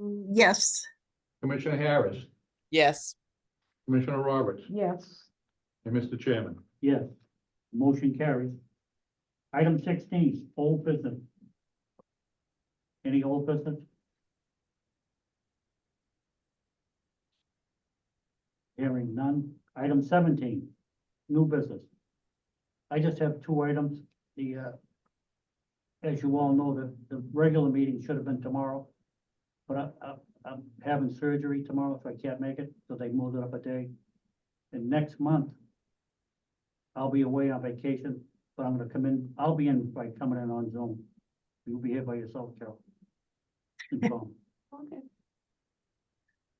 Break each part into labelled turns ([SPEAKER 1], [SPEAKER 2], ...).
[SPEAKER 1] Mm, Yes,
[SPEAKER 2] Commissioner Harris,
[SPEAKER 3] Yes,
[SPEAKER 2] Commissioner Roberts,
[SPEAKER 4] Yes.
[SPEAKER 2] and Mr. Chairman.
[SPEAKER 5] Yes, motion carries. Item sixteen, old business. Any old business? Hearing none. Item seventeen, new business. I just have two items. The, uh, as you all know, the, the regular meeting should have been tomorrow. But I, I, I'm having surgery tomorrow, so I can't make it, so they moved it up a day. And next month, I'll be away on vacation, but I'm gonna come in, I'll be in by coming in on Zoom. You'll be here by yourself, Carol. And so,
[SPEAKER 4] Okay.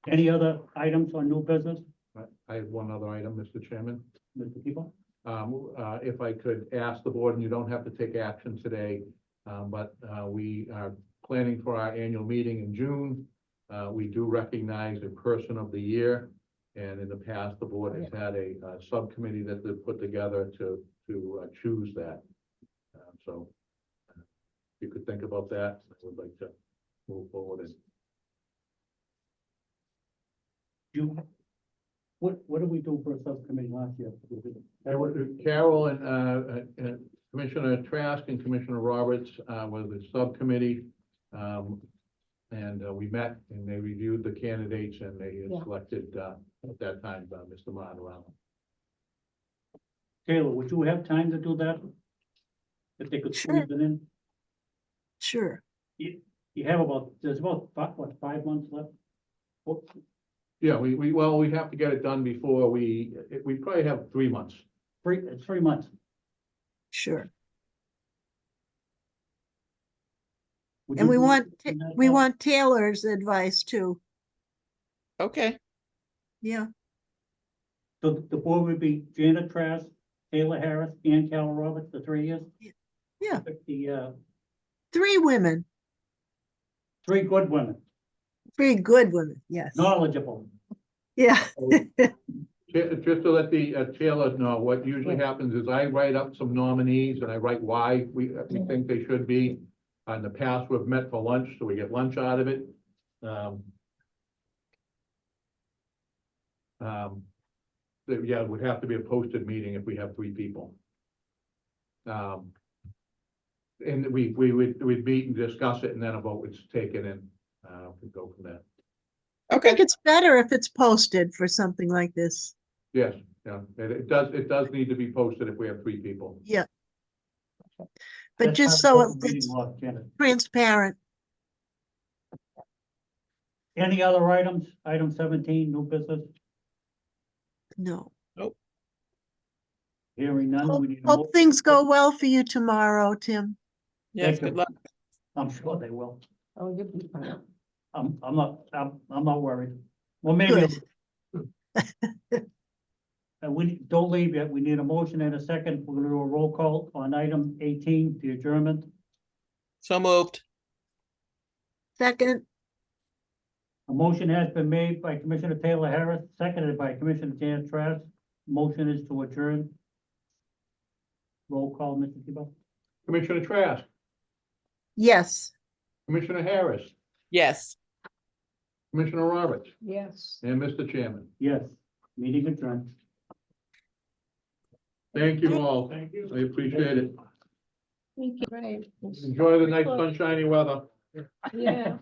[SPEAKER 5] Any other items on new business,
[SPEAKER 2] I- I have one other item, Mr. Chairman.
[SPEAKER 5] Mr. People?
[SPEAKER 2] Um, uh, if I could ask the board, and you don't have to take action today, um, but, uh, we are planning for our annual meeting in June. Uh, we do recognize a person of the year, and in the past, the board has had a, uh, subcommittee that they've put together to, to uh, choose that. Um, So uh, if you could think about that, I would like to move forward and
[SPEAKER 5] You, what, what did we do for a subcommittee last year?
[SPEAKER 2] And we- Carol and, uh, uh, Commissioner Trask and Commissioner Roberts, uh, were the subcommittee. Um, and, uh, we met and they reviewed the candidates and they
[SPEAKER 4] Yeah.
[SPEAKER 2] selected, uh, at that time, uh, Mr. Monroe.
[SPEAKER 5] Taylor, would you have time to do that? If they could squeeze it in?
[SPEAKER 1] sure.
[SPEAKER 5] You have about, there's about, fi- what, five months left? What,
[SPEAKER 2] Yeah, we, we, well, we have to get it done before we, it- we probably have three months.
[SPEAKER 5] three, it's three months.
[SPEAKER 1] Sure.
[SPEAKER 5] Would
[SPEAKER 1] And
[SPEAKER 5] you
[SPEAKER 1] we
[SPEAKER 5] do-
[SPEAKER 1] want,
[SPEAKER 5] do
[SPEAKER 1] Ta-
[SPEAKER 5] that,
[SPEAKER 1] we
[SPEAKER 5] Carol?
[SPEAKER 1] want Taylor's advice too.
[SPEAKER 3] okay,
[SPEAKER 1] Yeah,
[SPEAKER 5] The, the board would be Janet Trask, Taylor Harris, and Carol Roberts, the three years?
[SPEAKER 1] Yeah.
[SPEAKER 5] Pick The, uh,
[SPEAKER 1] three women,
[SPEAKER 5] three good women,
[SPEAKER 1] three good women, yes.
[SPEAKER 5] knowledgeable.
[SPEAKER 1] Yeah,
[SPEAKER 2] Ju- Just to let the uh, Taylor know, what usually happens is I write up some nominees and I write why we, uh, we think they should be. In the past, we've met for lunch, so we get lunch out of it. Um, um, so, Yeah, it would have to be a posted meeting if we have three people. Um, And we, we would, we'd meet and discuss it and then a vote was taken and uh, we go from there.
[SPEAKER 1] I
[SPEAKER 3] okay,
[SPEAKER 1] think it's better if it's posted for something like this.
[SPEAKER 2] Yes, yeah, it it does, it does need to be posted if we have three people.
[SPEAKER 1] But
[SPEAKER 5] That's
[SPEAKER 1] just
[SPEAKER 5] how
[SPEAKER 1] so
[SPEAKER 5] the meeting
[SPEAKER 1] it's
[SPEAKER 5] was, Janet.
[SPEAKER 1] transparent,
[SPEAKER 5] Any other items? Item seventeen, new business,
[SPEAKER 1] no.
[SPEAKER 5] hearing none.
[SPEAKER 1] Hope
[SPEAKER 5] we need a mo-
[SPEAKER 1] hope things go well for you tomorrow, Tim.
[SPEAKER 3] yes,
[SPEAKER 5] Thank you.
[SPEAKER 3] good luck,
[SPEAKER 5] I'm sure they will.
[SPEAKER 4] Oh, you'll be fine.
[SPEAKER 5] I'm, I'm not, I'm, I'm not worried. Well, maybe. And we, don't leave yet. We need a motion and a second. We're gonna do a roll call on item eighteen, the adjournment.
[SPEAKER 3] so moved,
[SPEAKER 1] Second,
[SPEAKER 5] A motion has been made by Commissioner Taylor Harris, seconded by Commissioner Janet Trask. Motion is to adjourn. Roll call, Mr. Tebow.
[SPEAKER 2] Commissioner Trask,
[SPEAKER 1] yes.
[SPEAKER 2] Commissioner Harris,
[SPEAKER 3] yes.
[SPEAKER 2] Commissioner Roberts,
[SPEAKER 4] Yes.
[SPEAKER 2] and Mr. Chairman.
[SPEAKER 5] Yes, meeting adjourned.
[SPEAKER 2] Thank you all. Thank you. I appreciate it.
[SPEAKER 4] Great.
[SPEAKER 2] Enjoy the nice sunshiny weather.
[SPEAKER 4] Yeah.